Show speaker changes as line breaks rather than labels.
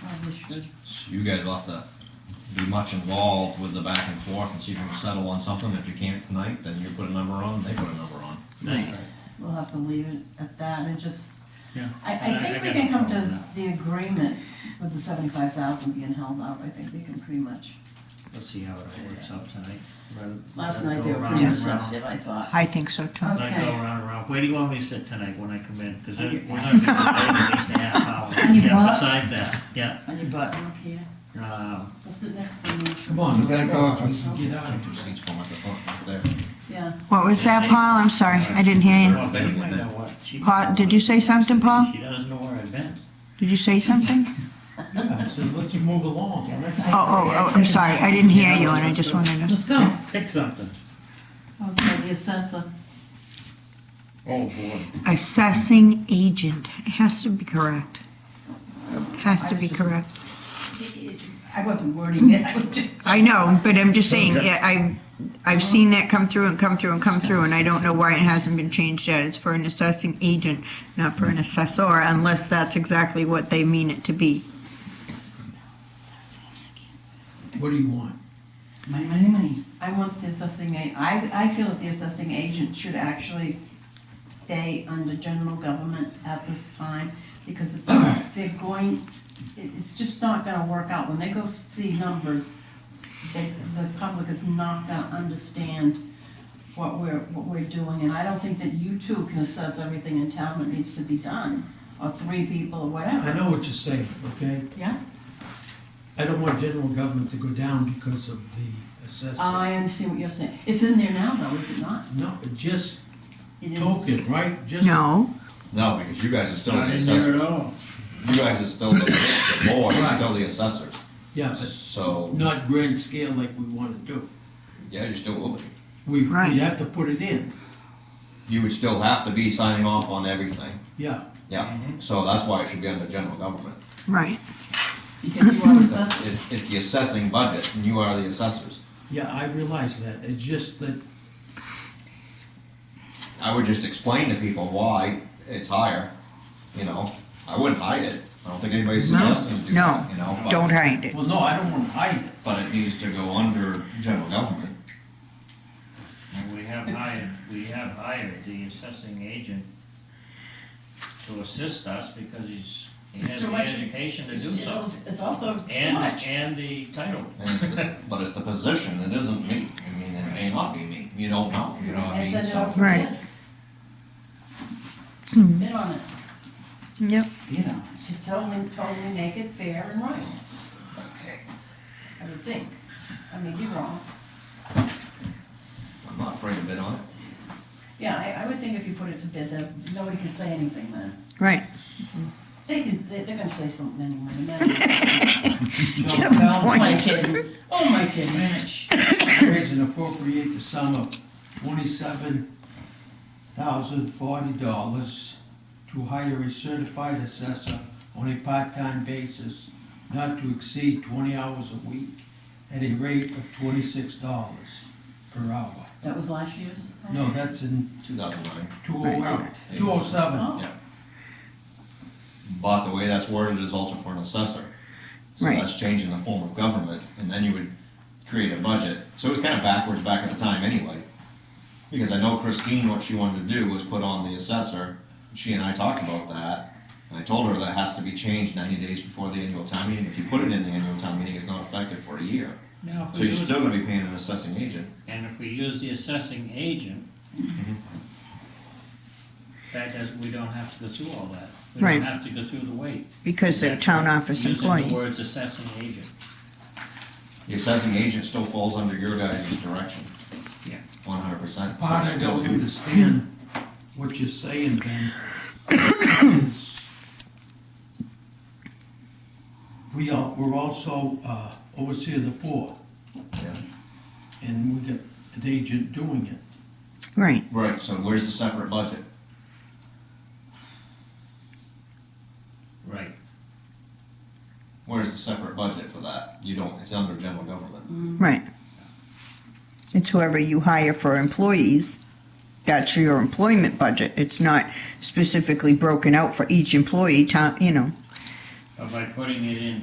probably Oh, should.
So you guys will have to be much involved with the back and forth and see if you can settle on something. If you can't tonight, then you put a number on, they put a number on.
Right. We'll have to leave it at that and just,
Yeah.
I, I
I- I
think we
got
can
no
come
problem
to
with
the agreement with the seventy-five thousand being held out. I think we can pretty much.
Let's see how it works out tonight. Rather-
Last
rather
night
go
they were
around
pretty
and
receptive, I thought.
I think so too.
around. Not go
Okay.
around and around. Where do you want me to sit tonight when I come in? Because we're
On your-
not gonna be at least a half hour.
On your
Yeah,
butt?
besides that, yeah.
On your butt. Okay,
Um,
we'll sit next to me.
Come on,
The back office.
Get out of your seats for them at the front right there.
Yeah,
What was that, Paul? I'm sorry, I didn't hear you.
well, but you might know what she-
Paul, did you say something, Paul?
She doesn't know where I've been.
Did you say something?
Yeah, so let's just move along.
Oh, oh, oh, I'm sorry, I didn't hear you and I just wanted to.
let's go.
Pick something.
Okay, the assessor.
Oh, boy.
Assessing agent, it has to be correct. Has to be correct.
I wasn't wording it, I was just.
I know, but I'm just saying, yeah, I, I've seen that come through and come through and come through and I don't know why it hasn't been changed yet. It's for an assessing agent, not for an assessor, unless that's exactly what they mean it to be.
What do you want?
Money, money, money. I want the assessing, a- I, I feel that the assessing agent should actually stay under general government at this time, because it's- they're going, it, it's just not gonna work out, when they go see numbers, they, the public is not gonna understand what we're, what we're doing, and I don't think that you two can assess everything in town that needs to be done, or three people, or
I
whatever.
know what you're saying, okay?
Yeah.
I don't want general government to go down because of the assessment.
I understand what you're saying, it's in there now, though, is it not?
No, it just
It is-
token, right? Just-
No,
No, because you guys are still
Not
the
in there at
assessors.
all.
You guys are still the, the board, is
Right.
still the assessors.
Yeah, but
So,
not grand scale like we want to do.
yeah, you still will be.
We, we
Right.
have to put it in,
You would still have to be signing off on everything.
yeah.
Yeah,
Mm-hmm.
so that's why it should be under general government.
right.
Because you are assessing.
It's, it's the assessing budget and you are the assessors.
Yeah, I realize that. It's just that,
I would just explain to people why it's higher, you know, I wouldn't hide it, I don't think anybody's
No.
suggesting to do that, you know? but-
Don't hide it.
well, no, I don't want to hide it.
But it needs to go under general government,
And we have hired, we have hired the assessing agent to assist us because he's, he has
Too
the
much.
education to do so.
It's also too
And,
much.
and the title.
and it's, the- but it's the position, it isn't me, I mean, it may not be me, you don't know, you know what I
And
mean?
send it
So-
off.
Right.
Bid on it,
Yep.
you know, to totally, totally make it fair and right. I would think, I mean, you're wrong.
I'm not afraid to bid on it.
Yeah, I, I would think if you put it to bid, then nobody can say anything then.
Right.
They can, they- they're gonna say something anyway. and then-
Shall town
Oh, my
council
kidding, oh, my goodness.
raise and appropriate the sum of twenty-seven thousand forty dollars to hire a certified assessor on a part-time basis, not to exceed twenty hours a week, at a rate of twenty-six dollars per hour.
That was last year's?
No, that's in
2009.
two oh, two oh seven.
Oh,
But the way that's worded is also for an assessor. So
Right.
that's changing the form of government, and then you would create a budget. So it was kind of backwards back at the time anyway. Because I know Christine, what she wanted to do was put on the assessor. She and I talked about that. And I told her that has to be changed ninety days before the annual town meeting. If you put it in the annual town meeting, it's not effective for a year.
Now, if
So
we
you're
use-
still gonna be paying an assessing agent.
And if we use the assessing agent,
Mm-hmm.
that does, we don't have to go through all that. We
Right.
don't have to go through the wait.
Because they're town office
Using
employees.
the words assessing agent.
The assessing agent still falls under your guys' direction.
Yeah.
One hundred percent.
Part I don't understand what you're saying, Ben. is We are, we're also uh, overseer of the board, and we got an agent doing it.
Right.
Right, so where's the separate budget?
Right.
Where's the separate budget for that? You don't, it's under general government.
Right. It's whoever you hire for employees, that's your employment budget. It's not specifically broken out for each employee, town, you know.
But by putting it in